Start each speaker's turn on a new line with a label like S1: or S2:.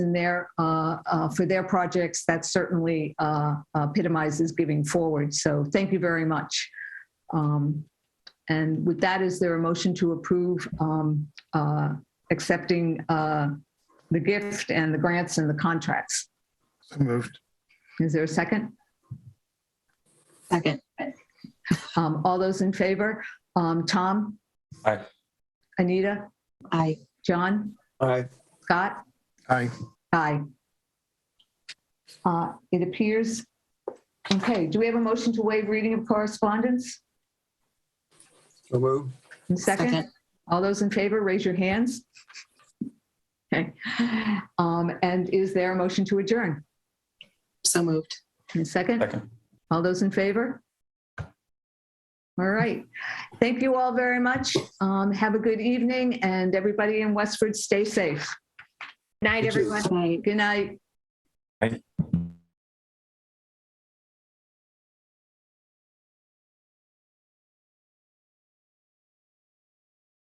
S1: in there uh, uh, for their projects, that certainly uh, epitomizes giving forward. So thank you very much. Um, And with that, is there a motion to approve um, uh, accepting uh, the gift and the grants and the contracts?
S2: So moved.
S1: Is there a second?
S3: Second,
S1: Um, All those in favor? Um, Tom?
S4: Aye.
S1: Anita?
S3: I,
S1: John?
S4: Aye.
S1: Scott?
S2: Aye.
S1: Aye. Uh, It appears, okay, do we have a motion to waive reading of correspondence?
S4: So moved.
S1: And Second,
S3: Second.
S1: all those in favor, raise your hands. Okay, Um, and is there a motion to adjourn?
S3: so moved.
S1: And second,
S4: Second.
S1: all those in favor? All right, thank you all very much. Um, Have a good evening, and everybody in Westford, stay safe.
S5: Night,
S4: Thank you.
S5: everyone.
S3: Right.
S1: Good night.